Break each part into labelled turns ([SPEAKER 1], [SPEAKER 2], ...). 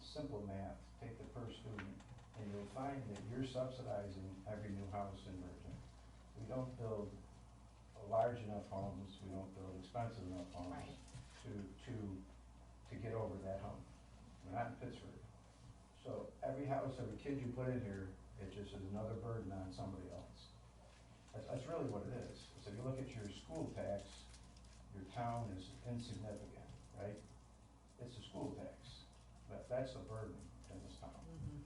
[SPEAKER 1] simple math, take the per student, and you'll find that you're subsidizing every new house in Virgin. We don't build large enough homes, we don't build expensive enough homes
[SPEAKER 2] Right.
[SPEAKER 1] to, to, to get over that hump. We're not in Pittsburgh. So every house, every kid you put in here, it just is another burden on somebody else. That's, that's really what it is. So if you look at your school tax, your town is insignificant, right? It's a school tax. That, that's the burden in this town.
[SPEAKER 2] Mm-hmm.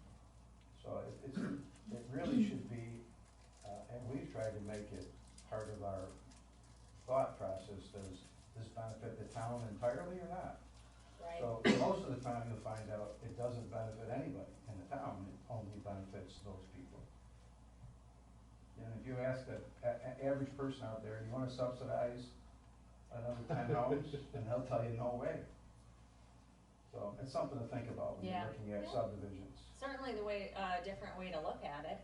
[SPEAKER 1] So it, it's, it really should be, uh, and we've tried to make it part of our thought process, does this benefit the town entirely or not?
[SPEAKER 2] right?
[SPEAKER 1] So most of the time you'll find out it doesn't benefit anybody in the town, it only benefits those people. And if you ask a, a- a- average person out there, you wanna subsidize another ten homes, and they'll tell you, no way. So it's something to think about when you're
[SPEAKER 2] Yeah.
[SPEAKER 1] looking at
[SPEAKER 2] Yeah.
[SPEAKER 1] subdivisions.
[SPEAKER 2] Certainly the way, uh, different way to look at it,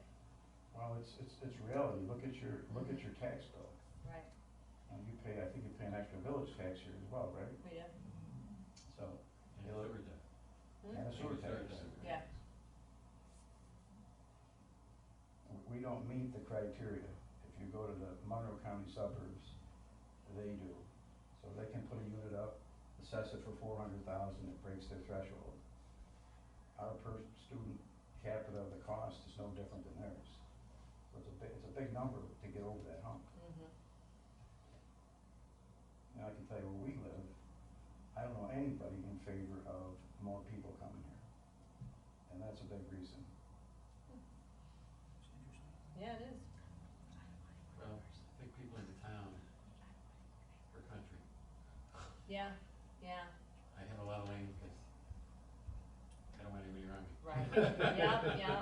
[SPEAKER 1] Well, it's, it's, it's reality, look at your, look at your tax bill,
[SPEAKER 2] right,
[SPEAKER 1] and you pay, I think you pay an extra village tax here as well, right?
[SPEAKER 2] we do,
[SPEAKER 1] So,
[SPEAKER 3] And a third that.
[SPEAKER 2] Hmm?
[SPEAKER 1] and a sewer
[SPEAKER 3] And a third
[SPEAKER 1] tax.
[SPEAKER 3] that.
[SPEAKER 2] Yeah.
[SPEAKER 1] we don't meet the criteria. If you go to the Monroe County suburbs, they do. So they can put a unit up, assess it for four hundred thousand, it breaks their threshold. Our per student capita, the cost is no different than theirs. So it's a big, it's a big number to get over that hump.
[SPEAKER 2] Mhm.
[SPEAKER 1] Now, I can tell you where we live, I don't know anybody in favor of more people coming here. And that's a big reason.
[SPEAKER 2] yeah, it is,
[SPEAKER 3] Well, I think people in the town, or country,
[SPEAKER 2] yeah, yeah,
[SPEAKER 3] I have a lot of land because I don't want anybody around me.
[SPEAKER 2] Right. Yeah, yeah.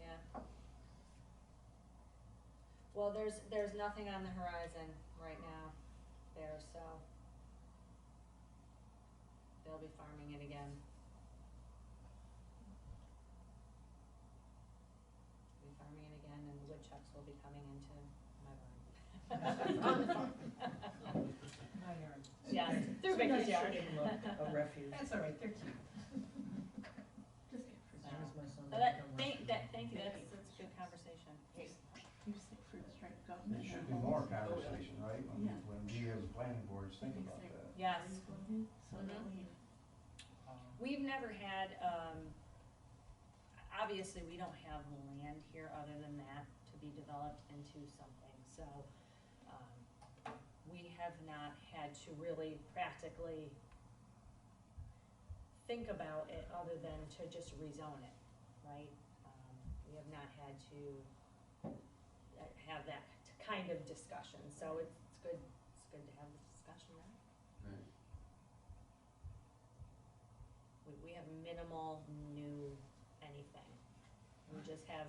[SPEAKER 2] yeah. Well, there's, there's nothing on the horizon right now there, so. They'll be farming it again. Be farming it again and the woodchucks will be coming into my barn.
[SPEAKER 4] On the farm. My yard.
[SPEAKER 2] Yeah, through
[SPEAKER 4] Sometimes
[SPEAKER 2] Vicky's yard.
[SPEAKER 4] she can look A refuge. That's all right, they're cute.
[SPEAKER 2] So-
[SPEAKER 4] That was my son.
[SPEAKER 2] But that, thank, that, thank you,
[SPEAKER 5] Thank you.
[SPEAKER 2] that's, that's a good conversation.
[SPEAKER 5] You say fruit strike
[SPEAKER 1] There
[SPEAKER 5] government.
[SPEAKER 1] should be more conversation, right? When,
[SPEAKER 5] Yeah.
[SPEAKER 1] when we as planning boards think
[SPEAKER 5] Think
[SPEAKER 1] about
[SPEAKER 5] so.
[SPEAKER 1] that.
[SPEAKER 2] Yes,
[SPEAKER 5] So that
[SPEAKER 2] Mhm.
[SPEAKER 5] we,
[SPEAKER 2] we've never had, um, obviously, we don't have land here other than that to be developed into something, so, um, we have not had to really practically think about it other than to just rezone it, right? Um, We have not had to uh, have that kind of discussion, so it's, it's good, it's good to have this discussion now.
[SPEAKER 3] Right.
[SPEAKER 2] We, we have minimal new anything. We just have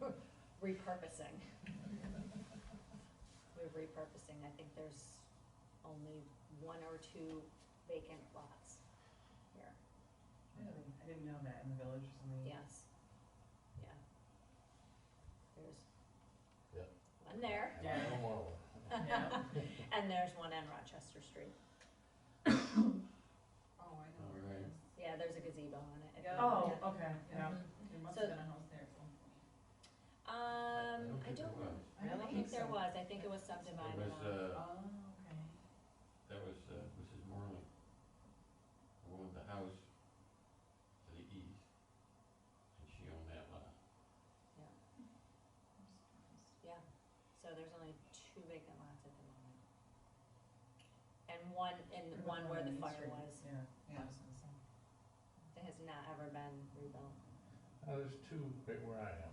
[SPEAKER 2] repurposing. We're repurposing, I think there's only one or two vacant lots here,
[SPEAKER 4] I didn't know that in the village or something.
[SPEAKER 2] yes, yeah. There's. One there,
[SPEAKER 4] Yeah.
[SPEAKER 2] Um,
[SPEAKER 4] Yeah.
[SPEAKER 2] and there's one on Rochester Street,
[SPEAKER 4] Oh, I
[SPEAKER 3] know where it is.
[SPEAKER 2] yeah, there's a gazebo on it. I think.
[SPEAKER 4] Oh,
[SPEAKER 2] Yeah.
[SPEAKER 4] okay, yeah.
[SPEAKER 2] Mhm.
[SPEAKER 4] There must
[SPEAKER 2] So-
[SPEAKER 4] have been a house there at some point.
[SPEAKER 2] Um, I
[SPEAKER 3] think there
[SPEAKER 2] don't,
[SPEAKER 3] was.
[SPEAKER 2] I don't think there was, I think it was
[SPEAKER 3] It
[SPEAKER 2] subdivided
[SPEAKER 3] was,
[SPEAKER 2] on.
[SPEAKER 3] uh,
[SPEAKER 4] Oh, okay.
[SPEAKER 3] that was, uh, Mrs. Morley, who owned the house to the east, and she owned that lot.
[SPEAKER 2] Yeah, so there's only two vacant lots at the moment. And one, and
[SPEAKER 4] What about
[SPEAKER 2] one where the
[SPEAKER 4] Main
[SPEAKER 2] fire
[SPEAKER 4] Street?
[SPEAKER 2] was,
[SPEAKER 4] Yeah, yeah, I was gonna say.
[SPEAKER 2] that has not ever been rebuilt.
[SPEAKER 6] Now, Uh, there's two right where I am.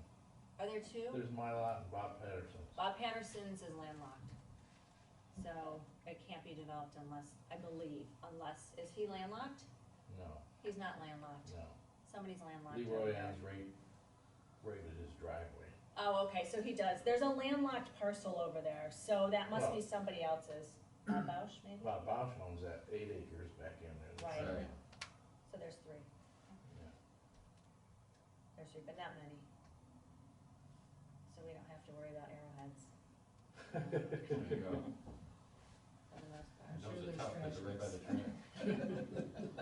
[SPEAKER 2] Are there two?
[SPEAKER 6] There's my lot and Bob Patterson's.
[SPEAKER 2] Bob Patterson's is landlocked, so it can't be developed unless, I believe, unless, is he landlocked?
[SPEAKER 6] No,
[SPEAKER 2] He's not landlocked,
[SPEAKER 6] no.
[SPEAKER 2] somebody's landlocked.
[SPEAKER 6] Leroy Ann's right, right at his driveway.
[SPEAKER 2] Oh, okay, so he does, there's a landlocked parcel over there, so that must be somebody else's, Bob Bausch maybe?
[SPEAKER 6] Bob Bosch owns that eight acres back in there.
[SPEAKER 2] Right.
[SPEAKER 3] Sorry.
[SPEAKER 2] So there's three,
[SPEAKER 6] Yeah.
[SPEAKER 2] there's three, but not many. So we don't have to worry about arrowheads.
[SPEAKER 3] There you go.
[SPEAKER 2] for the most part.
[SPEAKER 3] And
[SPEAKER 4] sure
[SPEAKER 3] Those are
[SPEAKER 4] there's
[SPEAKER 3] tough, 'cause they're right by the
[SPEAKER 4] tractors.